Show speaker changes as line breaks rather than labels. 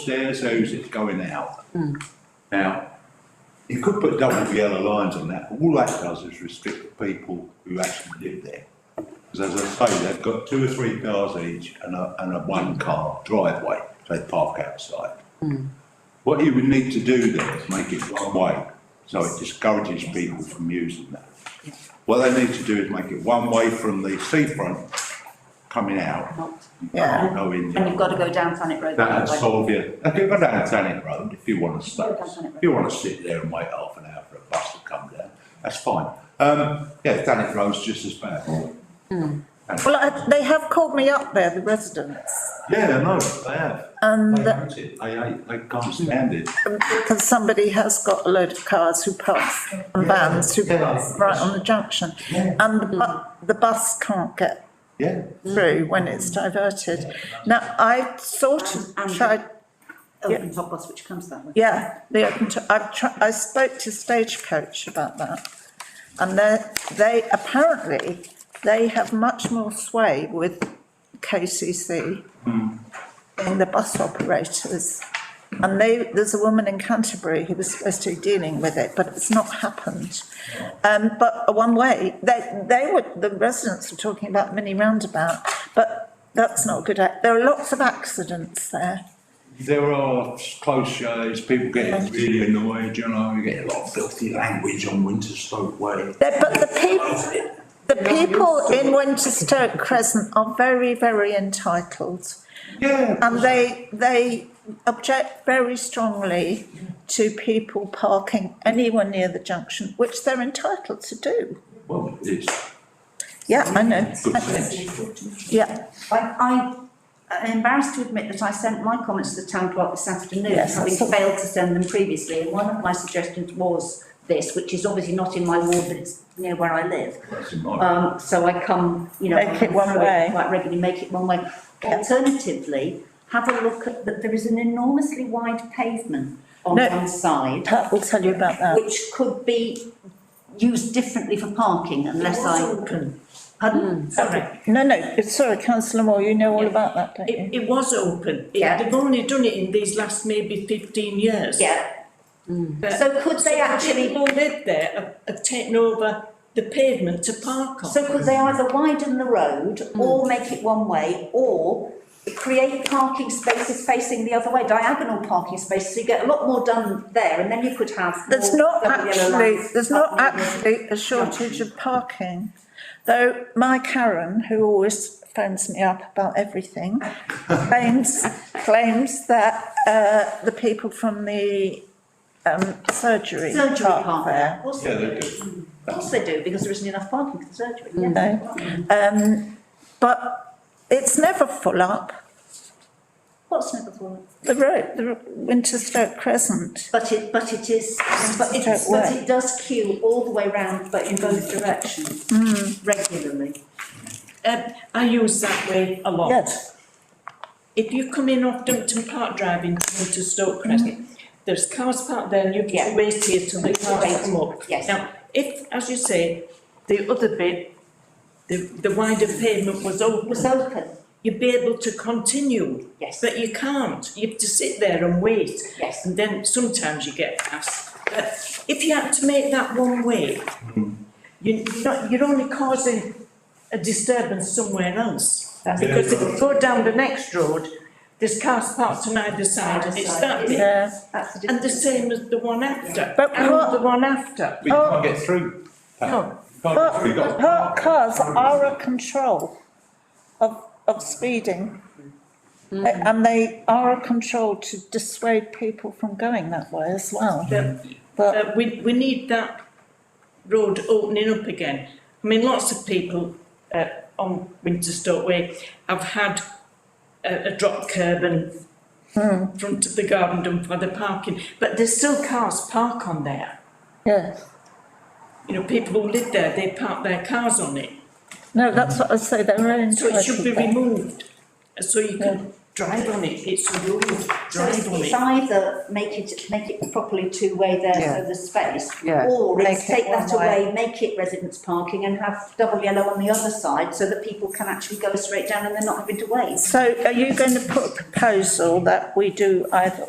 stairs houses going out. Now, you could put double yellow lines on that, but all that does is restrict the people who actually live there. Because as I say, they've got two or three cars each and a, and a one car driveway, so they park outside. What you would need to do there is make it one way, so it discourages people from using that. What they need to do is make it one way from the seafront coming out. You can't go in the
And you've got to go down Thanet Road.
that would
way.
solve you. Okay, go down Thanet Road if you want to stay.
Go down Thanet
If you want to sit there and wait half an hour for a bus to come down, that's fine. Um, yeah, Thanet Road's just as bad.
Well, I- they have called me up there, the residents,
Yeah, I know, they have.
and
They hate it. They, hate- they can't stand it.
because somebody has got a load of cars who pass and vans who pass right um, on the junction. And the bu- the bus can't get
Yeah,
through when it's diverted. Now, I sort of
And- and-
tried,
Open top bus which comes that way.
yeah, the, open to- I've tried, I spoke to Stagecoach about that. And they, they, apparently, they have much more sway with KCC than the bus operators. And they, there's a woman in Canterbury who was supposed to be dealing with it, but it's not happened. Um, but one way, they, they were, the residents were talking about mini roundabout, but that's not good. ac- There are lots of accidents there.
there are close shows, people getting really annoyed, you know, you get a lot of filthy language on Winterstoke Way.
There- But the people, the people in Winterstoke Crescent are very, very entitled.
Yeah.
And they, they object very strongly to people parking anywhere near the junction, which they're entitled to do.
Well, it's
Yeah, I know.
good sense.
Yeah,
I, I am embarrassed to admit that I sent my comments to the town clerk this afternoon,
Yes, I
having
saw-
failed to send them previously, and one of my suggestions was this, which is obviously not in my ward, but it's near where I live.
That's in my-
Um, so I come, you know.
Make it one
through
way.
Quite regularly, make it one way. Alternatively, have a look at, that there is an enormously wide pavement on
No.
one side,
Pat will tell you about that.
which could be used differently for parking unless I.
Hmm.
Pardon? Sorry.
No, no, sorry, councillor Moore, you know all about that, don't you?
It, it was open. It-
Yeah.
They've only done it in these last maybe fifteen years.
Yeah.
But-
So could they
The
actually,
people who live there have, have taken over the pavement to park on.
so could they either widen the road or make it one way or create parking spaces facing the other way, diagonal parking spaces, so you get a lot more done there and then you could have.
There's
more
not
double yellow
actually,
lines
there's not
up near the-
actually a shortage of parking. Though my Karen, who always phones me up about everything, claims, claims that, uh, the people from the, um, surgery
Surgery
park
park
there.
Of course
Yeah,
they
they
do.
do.
Of course they do, because there isn't enough parking for the surgery, yes.
No. Um, but it's never full up,
What's never for it?
the road, the Winterstoke Crescent.
But it, but it is, but it,
Don't
but
work. Mm.
it does queue all the way round, but in both directions, regularly.
Um, I use that way a lot.
Yes,
If you come in off Dumpton Park Drive into into Stoke Crescent, there's cars parked there and you
Mm-hmm. Yeah.
can wait here till the cars
Wait,
come up.
yes.
Now, if, as you say, the other bit, the, the wider pavement
Was
was open,
open,
you'd be able to continue.
yes,
But you can't, you have to sit there and wait.
yes.
And then sometimes you get past, but if you had to make that one way, you're not, you're only causing a disturbance somewhere else.
That's-
Because if you go down the next road, there's cars parked on either side and it's that bit.
yeah.
That's the
And the
difference.
same as the one after,
But what-
and the one after.
But you can't get through.
No.
Can't get
But
through.
parked cars are a control of, of speeding. They- And they are a control to dissuade people from going that way as well.
But-
But,
Uh, we, we need that road opening up again. I mean, lots of people, uh, on Winterstoke Way have had a, a drop curb and front of the garden done for the parking, but there's still cars park on there.
yeah,
You know, people who live there, they park their cars on it,
no, that's what I say, they're
so
entitled.
it should be
there.
removed. So you can drive on it, it's a road,
So it's
drive on
it's
it.
either make it, make it properly two-way there
Yeah.
for the space.
Yeah.
Or it's
Make it
take that
one-way.
away, make it residence parking and have double yellow on the other side so that people can actually go straight down and they're not having to wait.
So are you going to put a proposal that we do either